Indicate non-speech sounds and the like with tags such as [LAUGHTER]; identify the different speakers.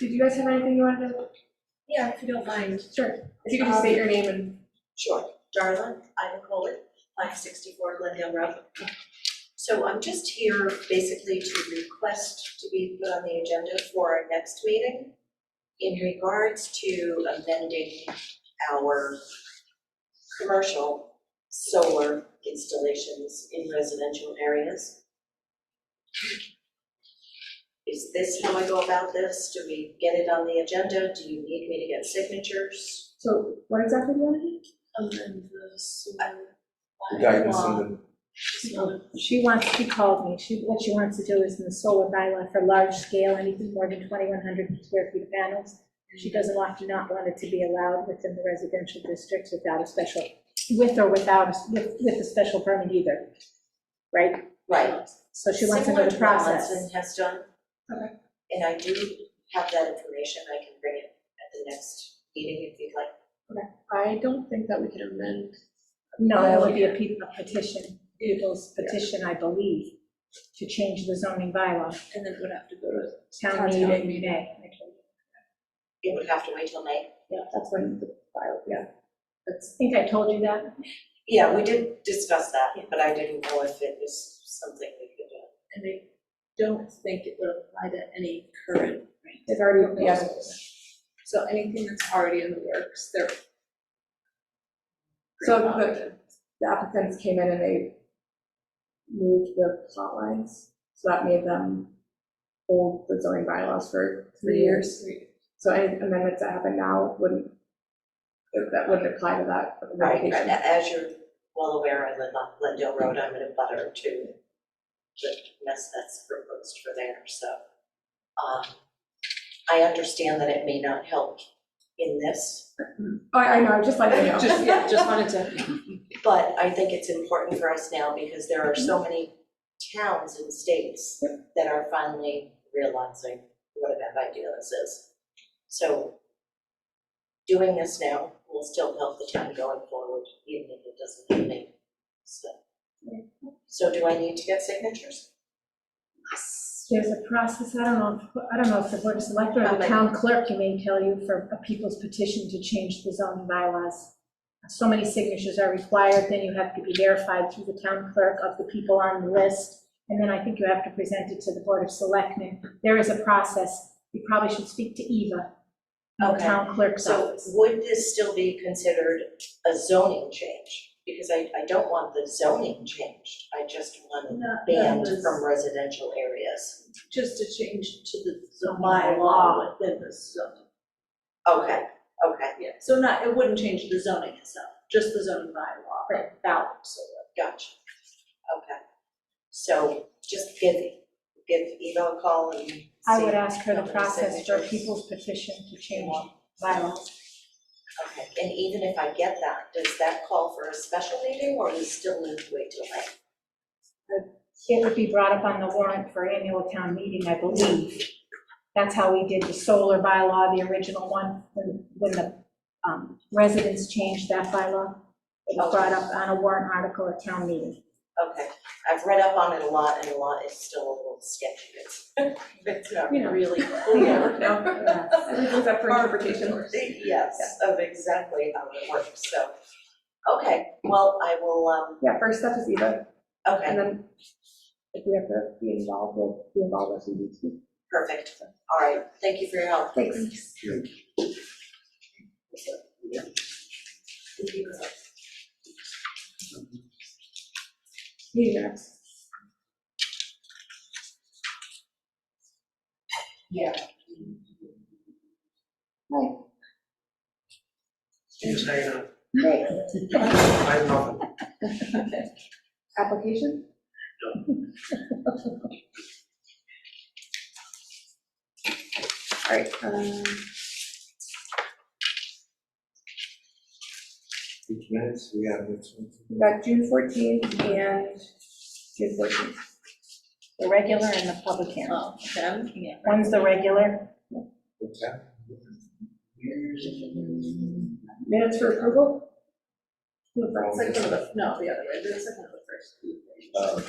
Speaker 1: Did you guys have anything you wanted to,
Speaker 2: Yeah, if you don't mind.
Speaker 1: sure, Um, if you could just state your name and,
Speaker 2: Sure. Darla, Ida Coley, five sixty-four Glendale Road. So I'm just here basically to request to be put on the agenda for our next meeting in regards to amending our commercial solar installations in residential areas. Is this how I go about this? Do we get it on the agenda? Do you need me to get signatures?
Speaker 1: so what exactly do you want to do?
Speaker 3: amend the sewer
Speaker 4: The guidance
Speaker 3: bylaw.
Speaker 4: and
Speaker 5: She wants, she called me, she, what she wants to do is in the solar bylaw for large scale, anything more than twenty-one hundred square feet of panels. She doesn't want to not want it to be allowed within the residential districts without a special, with or without, a- with, with a special permit either, right?
Speaker 2: Right.
Speaker 5: So she wants to know the
Speaker 2: Similar to what
Speaker 5: process.
Speaker 2: Monson has done.
Speaker 1: Okay.
Speaker 2: And I do have that information, I can bring it at the next meeting if you'd like.
Speaker 1: I don't think that we can amend,
Speaker 5: No, that would be a pe- a petition, Google's petition, I believe, to change the zoning bylaw,
Speaker 3: And then it would have to go to,
Speaker 5: town
Speaker 1: Town
Speaker 5: meeting,
Speaker 1: meeting.
Speaker 5: May.
Speaker 2: It would have to wait till May.
Speaker 5: Yeah, that's when the bylaw, yeah. That's, I think I told you that.
Speaker 2: Yeah, we did discuss that, but I didn't know if it was something we could uh, do.
Speaker 3: and I don't think it would apply to any current,
Speaker 5: It's already,
Speaker 3: yeah. So anything that's already in the works, they're.
Speaker 1: so the, the applicants came in and they moved the plot lines, so that made them hold the zoning bylaws for three years. So any amendments that happen now wouldn't, that wouldn't apply to that
Speaker 2: Right, and
Speaker 1: application.
Speaker 2: as you're well aware, I live on Glendale Road, I'm in a butter to the mess that's proposed for there, so. um, I understand that it may not help in this,
Speaker 1: Oh, I, I know, just like I know.
Speaker 3: Just, yeah, just wanted [LAUGHS] to.
Speaker 2: But I think it's important for us now because there are so many towns and states that are finally realizing what a bad idea this is. So doing this now will still help the town going forward, even if it doesn't help me, so. So do I need to get signatures?
Speaker 5: There's a process, I don't know, if- I don't know if the board of selectmen or the town clerk can maybe tell you for a people's petition to change the zoning bylaws. So many signatures are required, then you have to be verified through the town clerk of the people on the list. And then I think you have to present it to the board of selectmen. There is a process. You probably should speak to Eva, the
Speaker 2: Okay.
Speaker 5: town clerk's
Speaker 2: So
Speaker 5: office.
Speaker 2: would this still be considered a zoning change? Because I, I don't want the zoning changed, I just want
Speaker 3: Not
Speaker 2: banned from residential areas.
Speaker 3: Just a change to the zoning
Speaker 5: Bylaw.
Speaker 3: bylaw within the zoning.
Speaker 2: Okay, okay,
Speaker 3: Yeah, so not, it wouldn't change the zoning itself, just the zoning bylaw. Right. About solar.
Speaker 2: gotcha. Okay. So just give, give Eva a call and see.
Speaker 5: I would ask her
Speaker 2: how
Speaker 5: the
Speaker 2: many
Speaker 5: process for a
Speaker 2: signatures.
Speaker 5: people's petition to change bylaws.
Speaker 2: Okay, and even if I get that, does that call for a special meeting or is still need to wait till May?
Speaker 5: it would be brought up on the warrant for annual town meeting, I believe. That's how we did the solar bylaw, the original one, when, when the um, residents changed that bylaw. It was brought up on a warrant article at town meeting.
Speaker 2: Okay, I've read up on it a lot and a lot is still a little sketchy. It's, [LAUGHS] it's not
Speaker 1: You know.
Speaker 2: really
Speaker 1: Oh,
Speaker 3: Oh,
Speaker 1: Yeah,
Speaker 2: clear.
Speaker 1: [LAUGHS] no, everything's up for interpretation.
Speaker 2: Yes, of exactly how it works, so. Okay, well, I will, um,
Speaker 1: Yeah, first step is Eva,
Speaker 2: okay.
Speaker 1: and then if we have to be involved, we'll be involved as we need to.
Speaker 2: Perfect, all right, thank you for your help.
Speaker 1: Thanks. You next.
Speaker 2: Yeah.
Speaker 6: Just hanging out.
Speaker 1: Great,
Speaker 6: I have nothing.
Speaker 1: application? All right, um,
Speaker 4: Which minutes we have next one?
Speaker 1: we got June fourteenth and June fourteenth.
Speaker 5: The regular and the public hearing.
Speaker 3: Oh, okay, I'm looking at.
Speaker 5: One's the regular,
Speaker 4: What's that?
Speaker 1: Minutes for approval?
Speaker 3: Second, no, the other way, the second of the first.
Speaker 4: Uh,